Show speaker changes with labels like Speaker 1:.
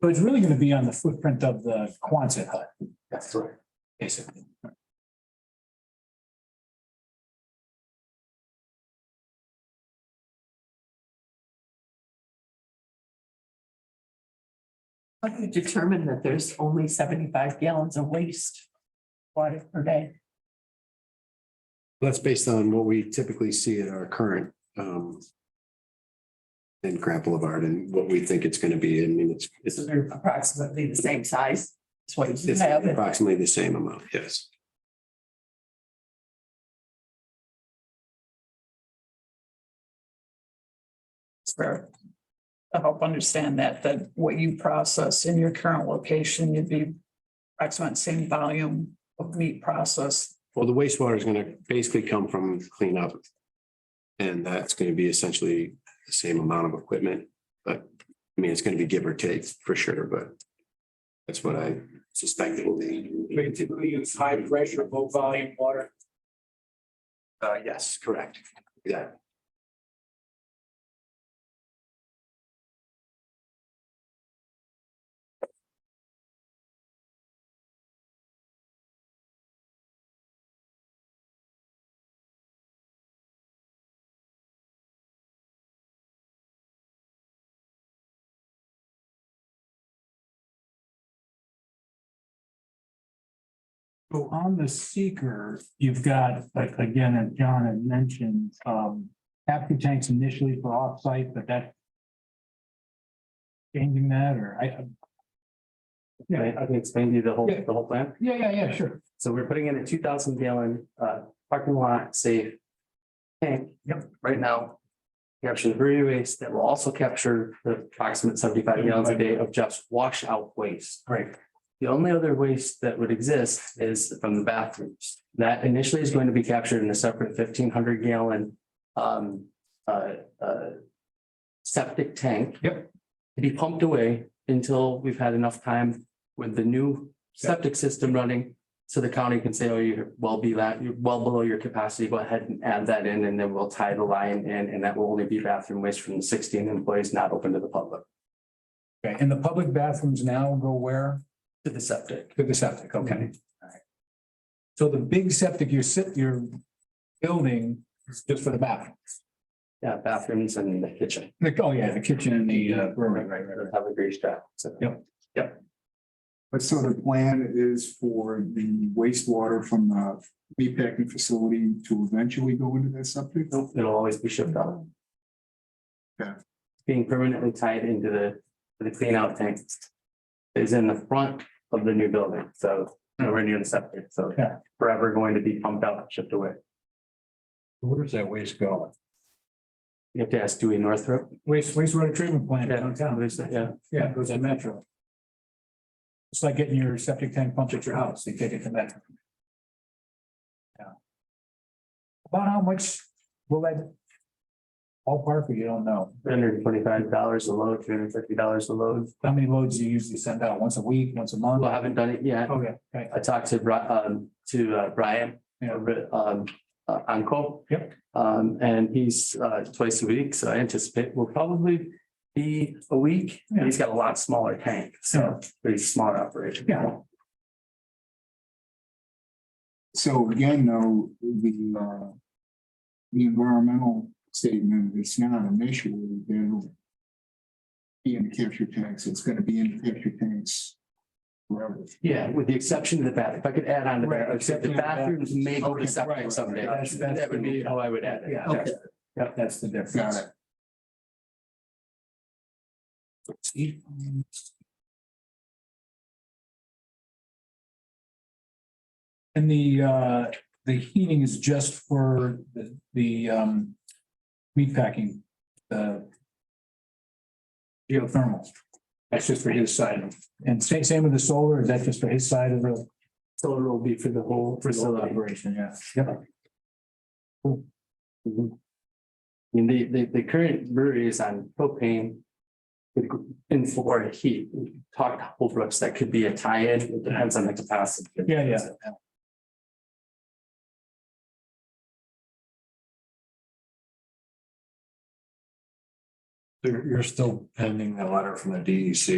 Speaker 1: But it's really gonna be on the footprint of the Quonset hut,
Speaker 2: That's right.
Speaker 1: basically.
Speaker 3: How do you determine that there's only seventy-five gallons of waste water per day?
Speaker 2: That's based on what we typically see at our current um. In Grand Boulevard and what we think it's gonna be. I mean, it's it's
Speaker 3: So they're approximately the same size. That's what you
Speaker 2: it's
Speaker 3: have.
Speaker 2: approximately the same amount, yes.
Speaker 4: for to help understand that, that what you process in your current location, you'd be approximately same volume of meat processed.
Speaker 2: Well, the wastewater is gonna basically come from cleanup. And that's gonna be essentially the same amount of equipment, but I mean, it's gonna be give or take for sure, but. That's what I suspect it will be.
Speaker 5: We typically use high pressure, low volume water.
Speaker 2: Uh, yes, correct. Yeah.
Speaker 1: So on the seeker, you've got, like, again, as John had mentioned, um, capture tanks initially for offsite, but that. Changing that, or I, I-
Speaker 5: I I can explain to you the whole,
Speaker 1: Yeah.
Speaker 5: the whole plan.
Speaker 1: yeah, yeah, yeah, sure.
Speaker 5: So we're putting in a two thousand gallon uh parking lot safe. Tank. Yep. Right now. Capture the brewery waste that will also capture the approximate seventy five gallons a day of just washout waste.
Speaker 1: Great.
Speaker 5: The only other waste that would exist is from the bathrooms. That initially is going to be captured in a separate fifteen hundred gallon um uh uh septic tank.
Speaker 1: Yep.
Speaker 5: To be pumped away until we've had enough time with the new septic system running. So the county can say, oh, you're well be that, you're well below your capacity, go ahead and add that in, and then we'll tie the line in, and that will only be bathroom waste from the sixteen employees not open to the public.
Speaker 1: Okay, and the public bathrooms now go where?
Speaker 5: To the septic.
Speaker 1: To the septic, okay.
Speaker 6: Mhm.
Speaker 1: All right. So the big septic you're sit, you're building is just for the bathroom.
Speaker 5: Yeah, bathrooms and the kitchen.
Speaker 1: The- oh yeah, the kitchen and the uh, brewery, right, right, right.
Speaker 5: Have a great job. So.
Speaker 6: But so the plan is for the wastewater from the meatpacking facility to eventually go into that septic?
Speaker 5: Nope, it'll always be shipped out.
Speaker 6: Yeah.
Speaker 5: Being permanently tied into the, to the clean out tank. Is in the front of the new building, so nowhere near the septic, so
Speaker 1: Yeah.
Speaker 5: forever going to be pumped out, shipped away.
Speaker 2: Where does that waste go?
Speaker 5: You have to ask Dewey Northrop.
Speaker 1: Waste, wastewater treatment plant
Speaker 5: Yeah,
Speaker 1: downtown.
Speaker 5: there's- Yeah,
Speaker 1: Yeah, it goes to Metro. It's like getting your septic tank pumped at your house, they take it to Metro. Yeah. About how much will that? Ballpark, or you don't know,
Speaker 5: three hundred and twenty-five dollars a load, three hundred and fifty dollars a load.
Speaker 1: how many loads do you usually send out, once a week, once a month?
Speaker 5: Well, I haven't done it yet.
Speaker 1: Oh, yeah, right.
Speaker 5: I talked to Bri- um, to uh, Brian.
Speaker 1: Yeah.
Speaker 5: over, Um, uh, Uncle.
Speaker 1: Yep.
Speaker 5: Um, and he's, uh, twice a week, so I anticipate will probably be a week.
Speaker 1: Yeah.
Speaker 5: He's got a lot smaller tank, so pretty smart operation.
Speaker 1: Yeah.
Speaker 6: So again, though, the, uh, the environmental statement, it's not an issue, they'll be in the capture tanks, it's gonna be in the capture tanks forever.
Speaker 5: Yeah, with the exception of the bathroom. If I could add on to
Speaker 1: Right,
Speaker 5: that, if
Speaker 1: exception
Speaker 5: the
Speaker 1: of the
Speaker 5: bathrooms may go to
Speaker 6: Okay,
Speaker 5: septic
Speaker 6: right,
Speaker 5: someday.
Speaker 1: right. That's- that's-
Speaker 5: That would be how I would add it.
Speaker 1: Yeah.
Speaker 6: Okay.
Speaker 1: Yeah, that's the difference.
Speaker 6: Got it.
Speaker 1: See? And the, uh, the heating is just for the, the, um, meatpacking, the geothermal. That's just for his side. And same, same with the solar, is that just for his side of the
Speaker 5: So it'll be for the whole facility.
Speaker 1: operation? Yeah. Yep.
Speaker 5: Mhm. I mean, the, the, the current brewery is on propane. with gr- In for heat, We talked to Whole Brooks, that could be a tie-in, it depends on the capacity.
Speaker 1: Yeah, yeah.
Speaker 2: You're, you're still pending the E letter from the DEC